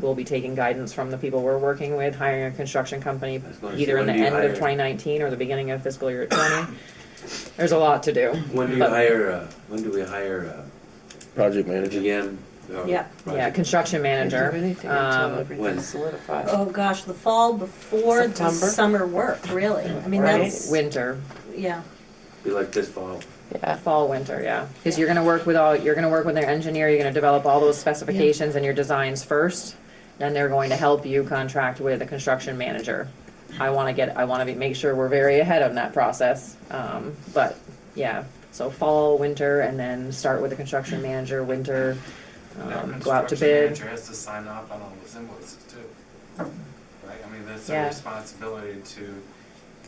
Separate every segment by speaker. Speaker 1: we'll be taking guidance from the people we're working with, hiring a construction company
Speaker 2: I was gonna
Speaker 1: either
Speaker 2: say,
Speaker 1: in the
Speaker 2: when do you
Speaker 1: end of
Speaker 2: hire?
Speaker 1: twenty nineteen or the beginning of fiscal year twenty. There's a lot to do.
Speaker 2: When do you
Speaker 1: But-
Speaker 2: hire, uh, when do we hire uh,
Speaker 3: Project
Speaker 2: a
Speaker 3: manager.
Speaker 2: GM? or
Speaker 4: Yeah.
Speaker 1: Yeah,
Speaker 2: project-
Speaker 1: construction manager. um,
Speaker 2: when?
Speaker 5: solidified.
Speaker 4: Oh, gosh, the fall before the
Speaker 5: September?
Speaker 4: summer work, really. I mean,
Speaker 1: right?
Speaker 4: that's,
Speaker 1: Winter,
Speaker 4: yeah.
Speaker 2: Be like this fall.
Speaker 5: Yeah.
Speaker 1: fall, winter, yeah. Because you're gonna work with all, you're gonna work with their engineer, you're gonna develop all those specifications and your designs first. Then they're going to help you contract with a construction manager. I wanna get, I wanna be, make sure we're very ahead on that process. Um, but, yeah, so fall, winter, and then start with the construction manager, winter, um, go out to bid.
Speaker 6: Construction manager has to sign off on all those invoices too. Right, I mean, that's
Speaker 1: Yeah.
Speaker 6: their responsibility to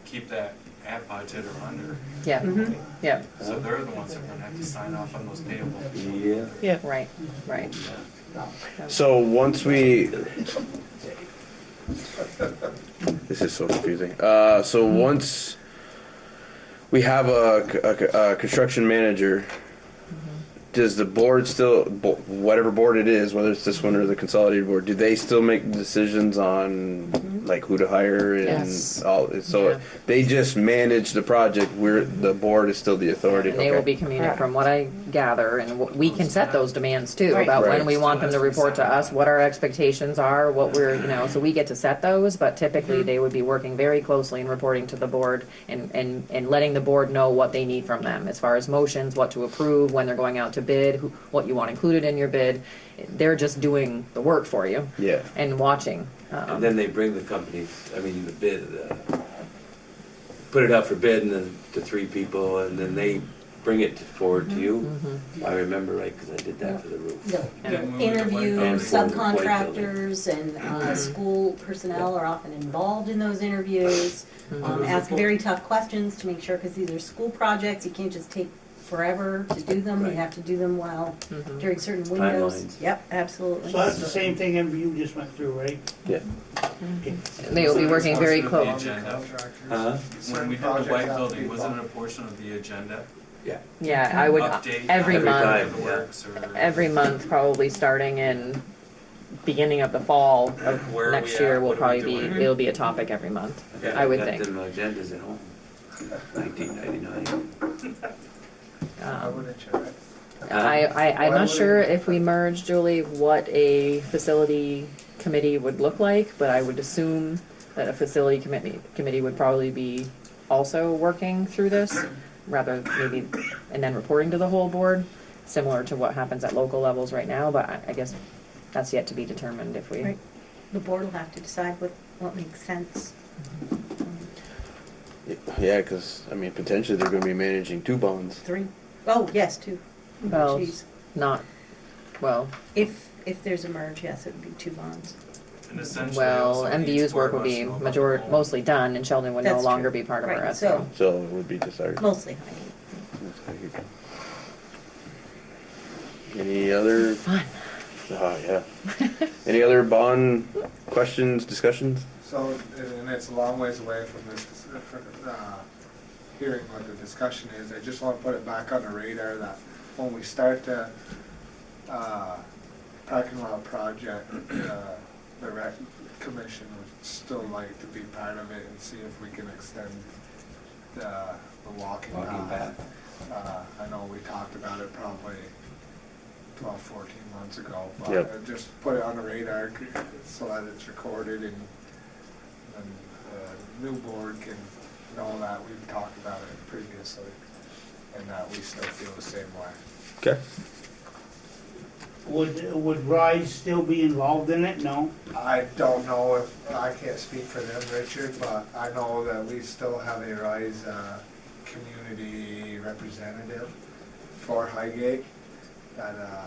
Speaker 6: keep that at budget or under.
Speaker 1: Yeah, yeah,
Speaker 6: So they're the ones that are gonna have to sign off on those payables.
Speaker 2: Yeah.
Speaker 1: right, right.
Speaker 3: So once we. This is so confusing. Uh, so once we have a, a, a construction manager, does the board still, bo- whatever board it is, whether it's this one or the consolidated board, do they still make decisions on like who to hire and
Speaker 1: Mm-hmm. Yes.
Speaker 3: all? So
Speaker 1: Yeah.
Speaker 3: they just manage the project. We're the board is still the authority.
Speaker 1: And they
Speaker 3: okay.
Speaker 1: will be communicated, from what I gather, and what- we can set those demands too,
Speaker 5: Right.
Speaker 1: about when
Speaker 3: Right.
Speaker 1: we want them to report to us, what our expectations are, what we're, you know, so we get to set those, but typically they would be working very closely and reporting to the board and, and, and letting the board know what they need from them, as far as motions, what to approve, when they're going out to bid, who, what you want included in your bid. They're just doing the work for you
Speaker 3: yeah.
Speaker 1: and watching.
Speaker 2: And
Speaker 1: Um,
Speaker 2: then they bring the companies, I mean, the bid, uh, put it out for bid and then to three people and then they bring it forward to you.
Speaker 1: mhm.
Speaker 2: I remember right, because I did that for the roof.
Speaker 4: The
Speaker 1: Yeah.
Speaker 4: interview
Speaker 2: And form the white
Speaker 4: subcontractors and uh, school personnel are often involved in those interviews.
Speaker 1: Mm-hmm.
Speaker 4: Um, Ask very tough questions to make sure, because these are school projects, you can't just take forever to do them. You
Speaker 2: Right.
Speaker 4: have to do them well
Speaker 1: Mhm.
Speaker 4: during certain windows.
Speaker 2: Timelines.
Speaker 4: Yep, absolutely.
Speaker 7: So that's the same thing MVU just went through, right?
Speaker 3: Yeah.
Speaker 7: Okay.
Speaker 1: They will be working very
Speaker 6: It's also
Speaker 1: close,
Speaker 6: on the agenda.
Speaker 2: Huh?
Speaker 6: When we did the white building, wasn't it a portion of the agenda?
Speaker 1: yeah, I would,
Speaker 6: Update
Speaker 1: every
Speaker 2: Every
Speaker 1: month.
Speaker 2: time.
Speaker 6: the works or
Speaker 1: every month, probably starting in beginning of the fall of
Speaker 6: Where are we
Speaker 1: next
Speaker 6: at?
Speaker 1: year will
Speaker 6: What are
Speaker 1: probably
Speaker 6: we
Speaker 1: be,
Speaker 6: doing?
Speaker 1: it'll be a topic every month.
Speaker 2: bet
Speaker 1: I would
Speaker 2: got
Speaker 1: think.
Speaker 2: them agendas at home, nineteen ninety-nine.
Speaker 1: Um, I, I, I'm not sure if we merge, Julie, what a facility committee would look like, but I would assume that a facility committee, committee would probably be also working through this, rather maybe, and then reporting to the whole board, similar to what happens at local levels right now, but I, I guess that's yet to be determined if we.
Speaker 4: Right. The board will have to decide what, what makes sense.
Speaker 1: Mm-hmm.
Speaker 4: Um,
Speaker 3: Yeah, because I mean, potentially they're going to be managing two bonds.
Speaker 4: Three. Oh, yes, two. Oh,
Speaker 1: Well,
Speaker 4: jeez.
Speaker 1: not, well,
Speaker 4: If, if there's a merge, yes, it would be two bonds.
Speaker 6: And essentially
Speaker 1: well,
Speaker 6: also each
Speaker 1: MVU's work
Speaker 6: board
Speaker 1: would
Speaker 6: wants to
Speaker 1: be
Speaker 6: know about
Speaker 1: major,
Speaker 6: the whole-
Speaker 1: mostly done, and Sheldon would no
Speaker 4: That's
Speaker 1: longer
Speaker 4: true.
Speaker 1: be part of our
Speaker 4: Right,
Speaker 1: SO.
Speaker 4: so-
Speaker 3: So it would be decided.
Speaker 4: Mostly Heidi.
Speaker 3: Any other?
Speaker 1: Fun.
Speaker 3: Oh yeah. Any other bond questions, discussions?
Speaker 8: So, and it's a long ways away from this, from, uh, hearing what the discussion is, I just wanna put it back on the radar that when we start the, uh, parking lot project, uh, the rec commission would still like to be part of it and see if we can extend the, the walking
Speaker 2: Walking
Speaker 8: path. Uh, I know we talked about it probably twelve, fourteen months ago, but
Speaker 3: Yep.
Speaker 8: uh, just put it on the radar c- so that it's recorded and, and the new board can know that we've talked about it previously and that we still feel the same way.
Speaker 3: Okay.
Speaker 7: Would, would Rise still be involved in it? No?
Speaker 8: I don't know if, I can't speak for them, Richard, but I know that we still have a RISE uh, community representative for Highgate. That, uh,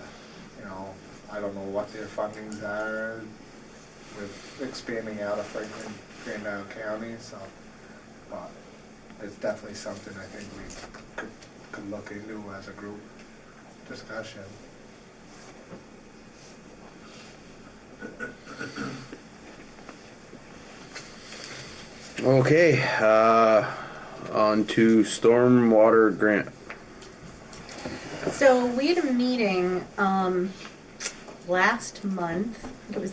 Speaker 8: you know, I don't know what their fundings are with expanding out of Franklin, Grandisle County, so. But it's definitely something I think we could, could look into as a group discussion.
Speaker 3: Okay. Uh, on to stormwater grant.
Speaker 4: So we had a meeting um, last month. I think It was